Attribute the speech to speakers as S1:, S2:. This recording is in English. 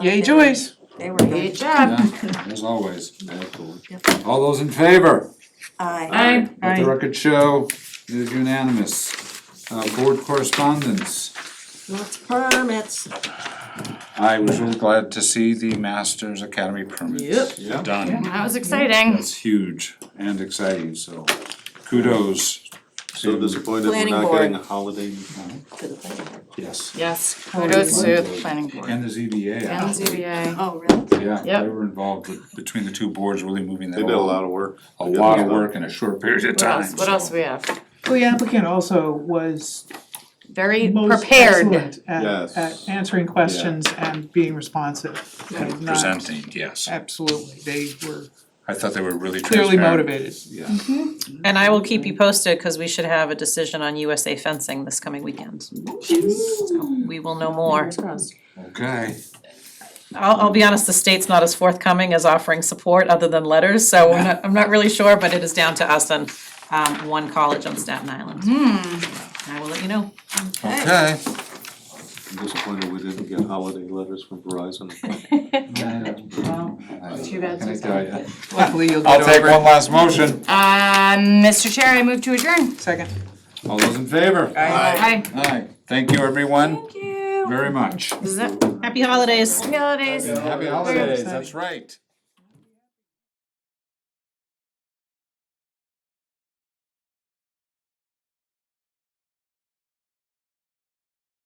S1: Yay, Joyce.
S2: They were good.
S3: Good job.
S4: Yeah, as always, absolutely.
S2: Yep.
S4: All those in favor,
S2: Aye.
S3: Aye.
S4: let the record show, it is unanimous. Uh, board correspondence,
S2: Lots of permits.
S4: I was really glad to see the Masters Academy permits done.
S3: That was exciting.
S4: That's huge and exciting, so kudos.
S5: So disappointed we're
S2: Planning
S5: not
S2: board.
S5: getting a holiday.
S2: to the planning board.
S4: Yes,
S3: Yes, kudos to the planning board
S4: and the ZBA,
S3: and
S4: actually.
S3: ZBA.
S2: Oh, really?
S4: yeah, they
S3: Yep.
S4: were involved with, between the two boards, really moving that
S5: They did a
S4: along.
S5: lot of work.
S4: A lot of work in a short period of
S3: What
S4: time.
S3: else, what
S4: so.
S3: else we have?
S1: Well, the applicant also was
S3: Very
S1: most
S3: prepared.
S1: excellent at,
S5: Yes.
S1: at answering questions and being responsive. Like, not-
S4: Presenting, yes,
S1: Absolutely, they were
S4: I thought they were really transparent.
S1: clearly motivated.
S5: Yeah.
S6: And I will keep you posted, cause we should have a decision on USA fencing this coming weekend. So We will know more.
S2: Fingers crossed.
S4: Okay.
S6: I'll, I'll be honest, the state's not as forthcoming as offering support other than letters, so I'm not, I'm not really sure, but it is down to us and, um, one college on Staten Island.
S2: Hmm.
S6: I will let you know.
S4: Okay.
S5: I'm disappointed we didn't get holiday letters from Verizon.
S3: Too bad.
S4: Can I tell ya?
S1: Luckily, you'll
S4: I'll
S1: get
S4: take
S1: over it.
S4: one last motion.
S3: Um, Mr. Chair, I move to adjourn.
S1: Second.
S4: All those in favor?
S3: Aye.
S4: Aye. Thank you, everyone,
S3: Thank you.
S4: very much.
S3: Is that,
S6: Happy holidays.
S3: happy holidays.
S4: Happy holidays, that's right.